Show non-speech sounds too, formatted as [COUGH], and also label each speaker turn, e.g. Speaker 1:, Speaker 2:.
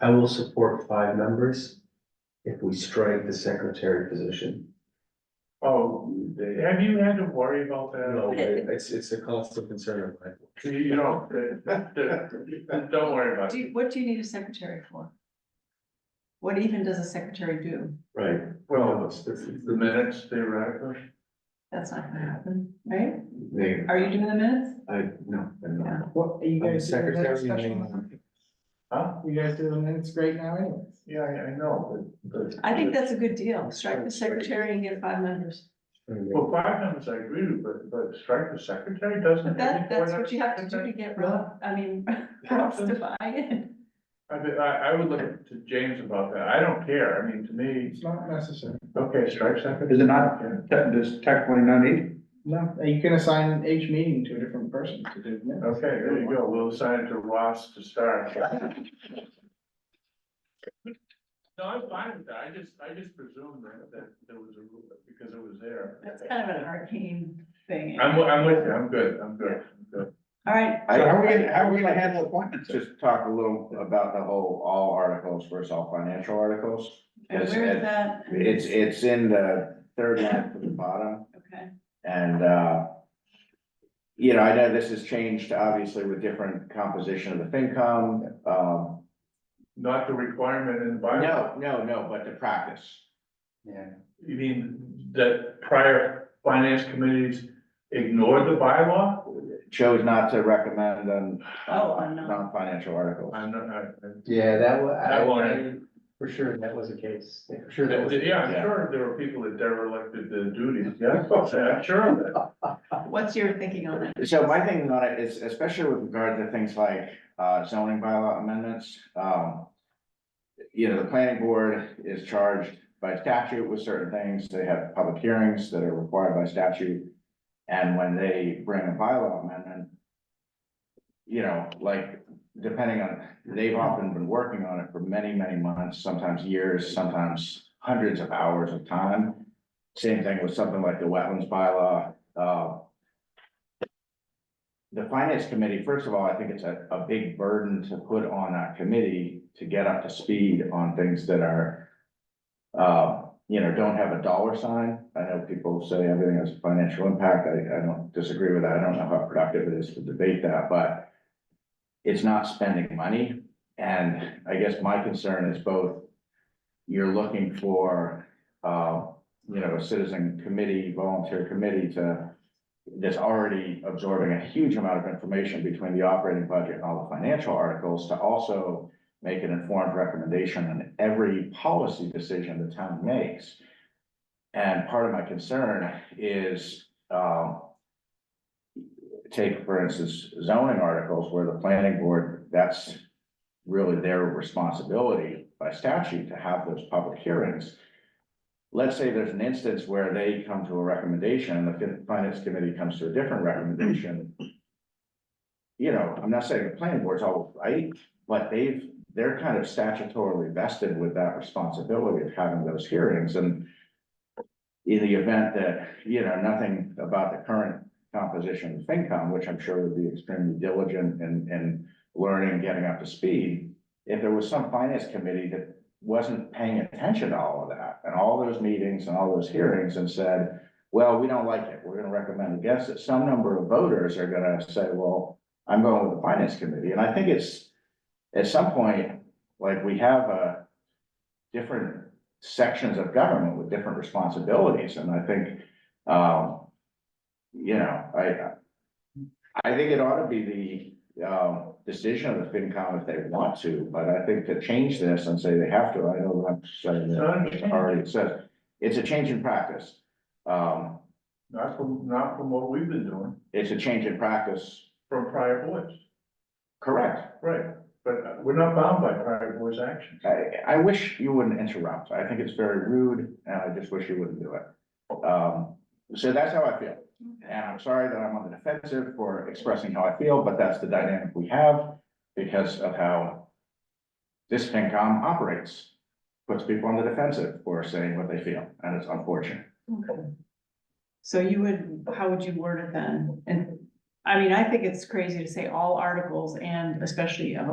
Speaker 1: I will support five members if we strike the secretary position.
Speaker 2: Oh,
Speaker 1: They-
Speaker 2: have you had to worry about that?
Speaker 1: No, it's, it's a constant concern of mine.
Speaker 2: You don't, don't worry about
Speaker 3: Do,
Speaker 2: it.
Speaker 3: you- what do you need a secretary for? What even does a secretary do?
Speaker 1: Right.
Speaker 2: Well, it's the the minutes theoretically.
Speaker 3: That's not gonna happen, right?
Speaker 1: They,
Speaker 3: Are you doing the minutes?
Speaker 1: I, no, I'm
Speaker 3: Yeah.
Speaker 1: not.
Speaker 4: What, are you
Speaker 1: I'm
Speaker 4: guys doing the
Speaker 1: secretary
Speaker 4: minutes
Speaker 1: and
Speaker 4: special
Speaker 1: then-
Speaker 4: now?
Speaker 2: Huh?
Speaker 4: You guys do the minutes great now anyways.
Speaker 2: Yeah, I I know, but. but-
Speaker 3: I think that's a good deal. Strike the secretary and get five members.
Speaker 2: Well, five members I agree with, but, but strike the secretary
Speaker 3: But
Speaker 2: doesn't.
Speaker 3: that, that's what you have to do to get Rob, I mean, [LAUGHS] Rob's to buy in.
Speaker 2: I, mean, I, I would look to James about that. I don't care. I mean, to me,
Speaker 4: It's not necessary.
Speaker 2: okay, strike secretary.
Speaker 5: Is it not?
Speaker 2: Yeah.
Speaker 5: That is technically not needed.
Speaker 4: No, you can assign each meeting to a different person to do the minutes.
Speaker 2: Okay, there you go. We'll assign it to Ross to
Speaker 3: [LAUGHS]
Speaker 2: start. No, I'm fine with that. I just, I just presumed that, that there was a rule, because it was there.
Speaker 3: That's kind of an arcane thing.
Speaker 2: I'm, wi- I'm with you. I'm good. I'm good. I'm good.
Speaker 3: All right.
Speaker 5: So how are we gonna, how are we gonna handle appointments?
Speaker 6: Just talk a little about the whole, all articles versus all financial articles.
Speaker 3: And where is that?
Speaker 6: It's, it's in the third line from the bottom
Speaker 3: Okay,
Speaker 6: and, uh. You know, I know this has changed obviously with different composition of the FinCom, um,
Speaker 2: Not the requirement in the bylaw.
Speaker 6: no, no, no, but the practice.
Speaker 5: Yeah.
Speaker 2: You mean that prior finance committees ignored the bylaw?
Speaker 6: Chose not to recommend on.
Speaker 3: Oh, on non-
Speaker 6: Non-financial articles.
Speaker 2: I'm not, I, I-
Speaker 1: Yeah, that was,
Speaker 2: That one,
Speaker 1: I, for sure, that was the case. For sure, that was.
Speaker 2: yeah, I'm
Speaker 6: Yeah.
Speaker 2: sure there were people that derelicted their duties. Yeah, I'm sure of that.
Speaker 3: what's your thinking on it?
Speaker 6: So my thing on it is especially with regard to things like uh, zoning bylaw amendments, um. You know, the planning board is charged by statute with certain things. They have public hearings that are required by statute. And when they bring a bylaw amendment. You know, like depending on, they've often been working on it for many, many months, sometimes years, sometimes hundreds of hours of time. Same thing with something like the wetlands bylaw, uh, the finance committee, first of all, I think it's a, a big burden to put on that committee to get up to speed on things that are. Uh, you know, don't have a dollar sign. I know people say everything has financial impact. I, I don't disagree with that. I don't know how productive it is to debate that, but. It's not spending money, and I guess my concern is both. You're looking for, uh, you know, a citizen committee, volunteer committee to that's already absorbing a huge amount of information between the operating budget and all the financial articles to also make an informed recommendation on every policy decision the town makes. And part of my concern is, um, take, for instance, zoning articles where the planning board, that's really their responsibility by statute to have those public hearings let's say there's an instance where they come to a recommendation, and the fin- finance committee comes to a different recommendation. You know, I'm not saying the planning board's all right, but they've, they're kind of statutorily vested with that responsibility of having those hearings and. In the event that, you know, nothing about the current composition of FinCom, which I'm sure would be extremely diligent and, and learning, getting up to speed. If there was some finance committee that wasn't paying attention to all of that and all those meetings and all those hearings and said, well, we don't like it. We're gonna recommend against it. Some number of voters are gonna say, well, I'm going with the finance committee. And I think it's, at some point, like we have a different sections of government with different responsibilities. And I think, um, you know, I, I think it ought to be the, um, decision of the FinCom if they want to, but I think to change this and say they have to, I know I'm saying
Speaker 2: So I
Speaker 6: that
Speaker 2: understand.
Speaker 6: already it says, it's a change in practice. Um,
Speaker 2: Not from, not from what we've been doing,
Speaker 6: it's a change in practice,
Speaker 2: from prior boards,
Speaker 6: correct?
Speaker 2: right, but uh, we're not bound by prior boards' actions.
Speaker 6: I, I wish you wouldn't interrupt. I think it's very rude and I just wish you wouldn't do it. Um, so that's how I feel. And I'm sorry that I'm on the defensive for expressing how I feel, but that's the dynamic we have because of how this FinCom operates. Puts people on the defensive for saying what they feel, and it's unfortunate.
Speaker 3: Okay. So you would, how would you word it then? And, I mean, I think it's crazy to say all articles and especially of a